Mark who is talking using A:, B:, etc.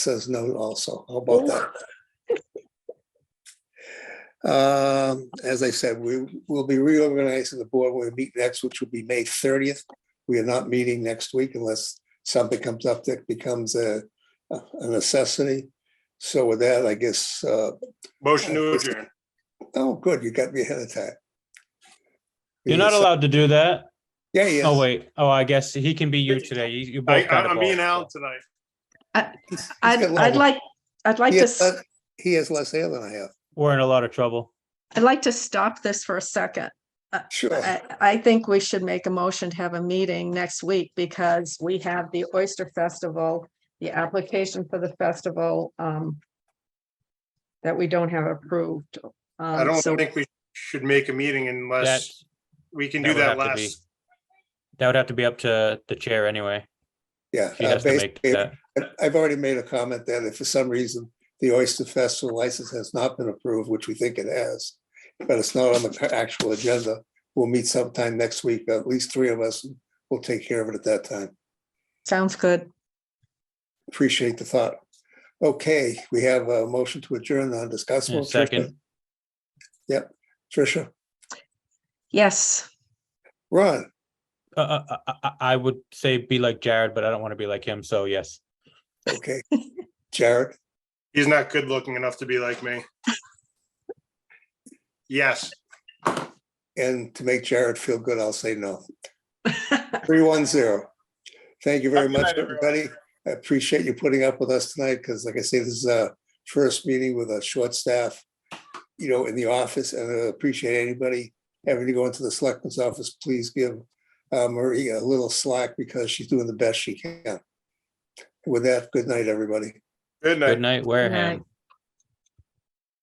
A: says no also. How about that? Um, As I said, we will be reorganizing the board when we meet next, which will be May thirtieth. We are not meeting next week unless something comes up that becomes a a necessity. So with that, I guess, uh,
B: Motion to adjourn.
A: oh, good, you got me ahead of time.
C: You're not allowed to do that.
A: Yeah, yeah.
C: Oh, wait. Oh, I guess he can be you today. You, you
B: I,
C: both.
B: I-
C: got the
B: I'm
C: ball.
B: being out tonight.
A: He's- he's
D: I'd,
A: got a lot
D: I'd
A: of-
D: like, I'd like
A: he
D: to,
A: has
D: s-
A: le- He has less hair than I have.
C: We're in a lot of trouble.
D: I'd like to stop this for a second.
A: Sure.
D: I, I think we should make a motion to have a meeting next week because we have the Oyster Festival, the application for the festival, um, that we don't have approved.
B: I
D: Um,
B: don't
D: so-
B: think we should make a meeting
C: That,
B: unless we can
C: that
B: do
C: would
B: that
C: have to be-
B: last.
C: that would have to be up to the chair anyway.
A: Yeah.
C: She
A: uh,
C: has to make
A: basically,
C: that.
A: I- I've already made a comment that if for some reason the Oyster Festival license has not been approved, which we think it has, but it's not on the cu- actual agenda, we'll meet sometime next week, at least three of us, and we'll take care of it at that time.
D: Sounds good.
A: Appreciate the thought. Okay, we have a motion to adjourn on discussable. Tricia?
C: second.
A: Yep, Tricia,
D: Yes,
A: Ron,
C: Uh, uh, uh, uh, I would say be like Jared, but I don't want to be like him. So yes.
A: okay, Jared,
B: He's not good looking enough to be like me. Yes,
A: and to make Jared feel good, I'll say no. Three one zero. Thank you very
B: Good night,
A: much,
B: everyone.
A: everybody. I appreciate you putting up with us tonight, because like I say, this is our first meeting with a short staff, you know, in the office, and I appreciate anybody having to go into the selectman's office, please give uh, Marie a little slack, because she's doing the best she can. With that, good night, everybody.
B: good night.
C: Good night, Wareham.